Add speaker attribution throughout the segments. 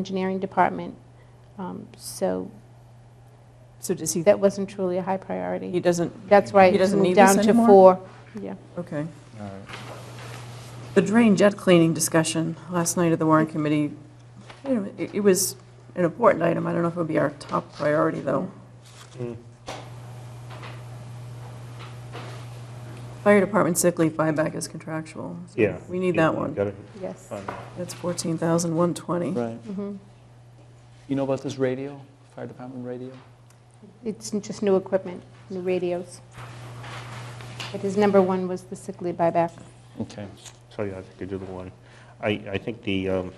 Speaker 1: engineering department. Um, So
Speaker 2: So does he,
Speaker 1: that wasn't truly a high priority.
Speaker 2: he doesn't,
Speaker 1: That's why
Speaker 2: He
Speaker 1: it's
Speaker 2: doesn't
Speaker 1: moved
Speaker 2: need this
Speaker 1: down to
Speaker 2: anymore?
Speaker 1: four. Yeah.
Speaker 2: okay.
Speaker 3: All right.
Speaker 2: The drain jet cleaning discussion last night at the Warren Committee, you know, it it was an important item. I don't know if it would be our top priority, though.
Speaker 4: Hmm.
Speaker 2: Fire department sick leave buyback is contractual. so
Speaker 4: Yeah.
Speaker 2: We need
Speaker 4: you-
Speaker 2: that
Speaker 4: you
Speaker 2: one.
Speaker 4: gotta uh,
Speaker 1: Yes.
Speaker 4: find that.
Speaker 2: That's 14,120.
Speaker 5: Right.
Speaker 1: Mhm.
Speaker 5: You know about this radio, fire department radio?
Speaker 1: It's just new equipment, new radios. But his number one was the sick leave buyback.
Speaker 5: Okay.
Speaker 4: So, yeah, I think you do the one. I, I think the, um,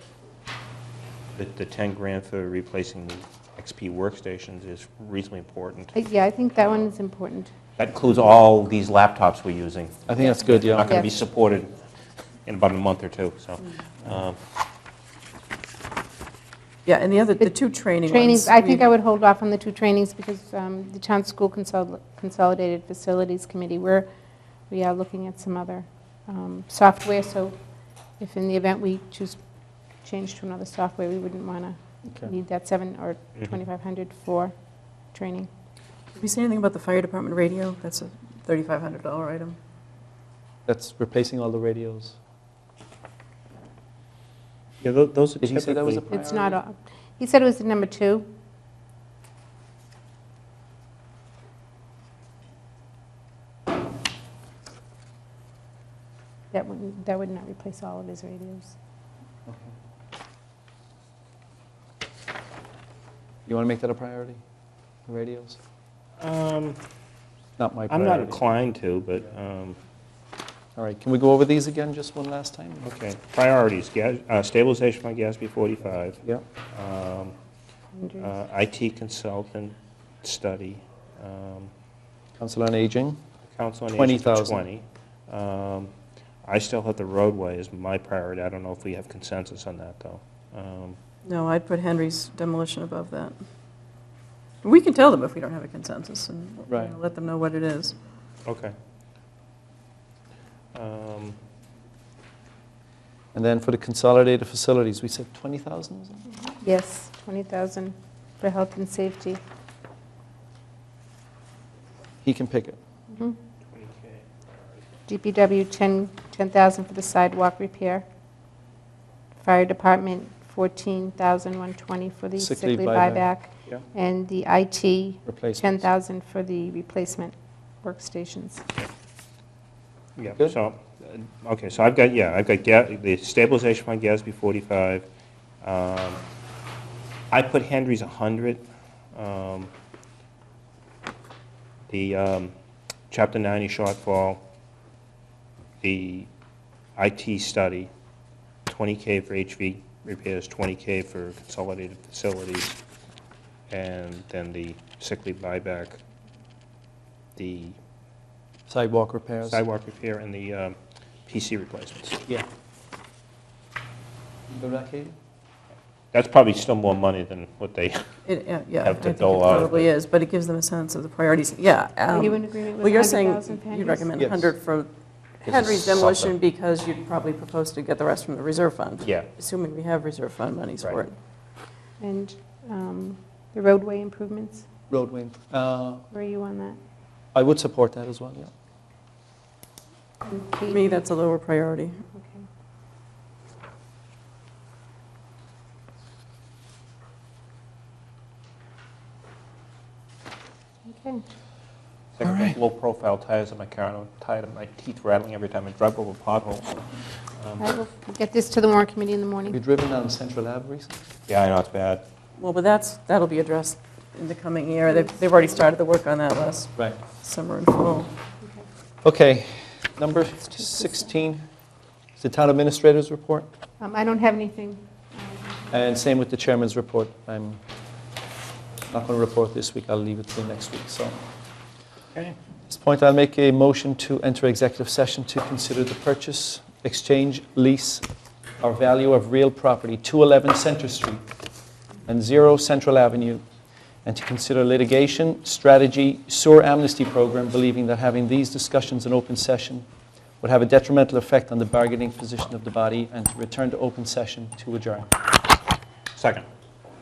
Speaker 4: the the 10 grand for replacing the XP workstations is reasonably important.
Speaker 1: Uh, Yeah, I think that one is important.
Speaker 4: That includes all these laptops we're using.
Speaker 5: I think that's good,
Speaker 4: Not
Speaker 5: yeah.
Speaker 4: going to be
Speaker 1: Yes.
Speaker 4: supported in about a month or two, so. um,
Speaker 2: Yeah, and the other, the two training ones.
Speaker 1: Trainings, I think I would hold off on the two trainings because um, the Town School Consol- Consolidated Facilities Committee, we're, we are looking at some other um, software, so if in the event we choose, change to another software, we wouldn't want to
Speaker 5: Okay.
Speaker 1: need that seven or
Speaker 4: Mhm.
Speaker 1: 2,500 for training.
Speaker 2: Did we say anything about the fire department radio? That's a $3,500 item.
Speaker 5: That's replacing all the radios.
Speaker 4: Yeah, tho- those are
Speaker 5: Did he say that was a
Speaker 4: typically,
Speaker 5: priority?
Speaker 1: It's not, a- he said it was the number two. That would, that would not replace all of his radios.
Speaker 5: Okay. You want to make that a priority, the radios?
Speaker 4: Um,
Speaker 5: Not my
Speaker 4: I'm not
Speaker 5: priority.
Speaker 4: inclined to, but, um,
Speaker 5: All right, can we go over these again just one last time?
Speaker 4: okay. Priorities, gas- uh, stabilization by GASB 45,
Speaker 5: Yeah.
Speaker 4: um,
Speaker 1: Hundreds.
Speaker 4: uh, IT consultant study, um,
Speaker 5: Council on Aging,
Speaker 4: Council on Aging for
Speaker 5: 20,000.
Speaker 4: 20. Um, I still have the roadway as my priority. I don't know if we have consensus on that, though. Um,
Speaker 2: No, I'd put Henry's demolition above that. We can tell them if we don't have a consensus and you know,
Speaker 5: Right.
Speaker 2: let them know what it is.
Speaker 4: Okay. Um,
Speaker 5: and then for the consolidated facilities, we said 20,000 or something?
Speaker 1: Yes, 20,000 for health and safety.
Speaker 5: He can pick it.
Speaker 1: Mhm. DPW, 10 10,000 for the sidewalk repair. Fire Department, 14,120 for the
Speaker 5: Sick
Speaker 1: sick leave
Speaker 5: leave buyback.
Speaker 1: buyback.
Speaker 4: Yeah.
Speaker 1: And the IT,
Speaker 5: Replacements.
Speaker 1: 10,000 for the replacement workstations.
Speaker 4: Yeah,
Speaker 5: Good.
Speaker 4: so, uh, okay, so I've got, yeah, I've got Ga- the stabilization fund, GASB 45. Um, I put Henry's 100. um, The um, Chapter 90 shortfall, the IT study, 20K for HV repairs, 20K for consolidated facilities, and then the sick leave buyback, the
Speaker 5: Sidewalk repairs.
Speaker 4: sidewalk repair and the um, PC replacements.
Speaker 5: Yeah. Go back, Katie?
Speaker 4: That's probably still more money than what they,
Speaker 2: It, yeah, yeah,
Speaker 4: Have to
Speaker 2: I think it
Speaker 4: dole out,
Speaker 2: probably
Speaker 4: but-
Speaker 2: is, but it gives them a sense of the priorities, yeah.
Speaker 1: Are you
Speaker 2: um,
Speaker 1: in agreement with
Speaker 2: Well, you're saying
Speaker 1: 100,000 for
Speaker 2: you'd
Speaker 1: Henry's?
Speaker 2: recommend
Speaker 5: Yes.
Speaker 2: 100 for
Speaker 4: This is
Speaker 2: Henry's demolition
Speaker 4: something.
Speaker 2: because you'd probably propose to get the rest from the reserve fund.
Speaker 4: yeah,
Speaker 2: Assuming we have reserve fund monies for
Speaker 4: Right.
Speaker 2: it.
Speaker 1: And um, the roadway improvements,
Speaker 5: Roadway. Uh,
Speaker 1: where are you on that?
Speaker 5: I would support that as well, yeah.
Speaker 1: And
Speaker 2: To
Speaker 1: Kate?
Speaker 2: me, that's a lower priority.
Speaker 1: Okay. Okay.
Speaker 4: Second, low-profile tires on my car, and I'm tired of my teeth rattling every time I drive over a pothole. Um,
Speaker 1: I will get this to the warrant committee in the
Speaker 5: Have you
Speaker 1: morning.
Speaker 5: driven down Central Ave recently?
Speaker 4: Yeah, I know, it's bad.
Speaker 2: Well, but that's, that'll be addressed in the coming year. They've, they've already started the work on that last
Speaker 5: Right.
Speaker 2: summer and fall.
Speaker 5: Okay, number 16 is the town administrator's report,
Speaker 1: Um, I don't have anything.
Speaker 5: and same with the chairman's report. I'm not going to report this week, I'll leave it till next week, so.
Speaker 4: Okay.
Speaker 5: At this point, I'll make a motion to enter executive session to consider the purchase, exchange, lease, or value of real property, 211 Center Street and 0 Central Avenue, and to consider litigation, strategy, sewer amnesty program, believing that having these discussions in open session would have a detrimental effect on the bargaining position of the body, and to return to open session to adjourn.
Speaker 4: Second.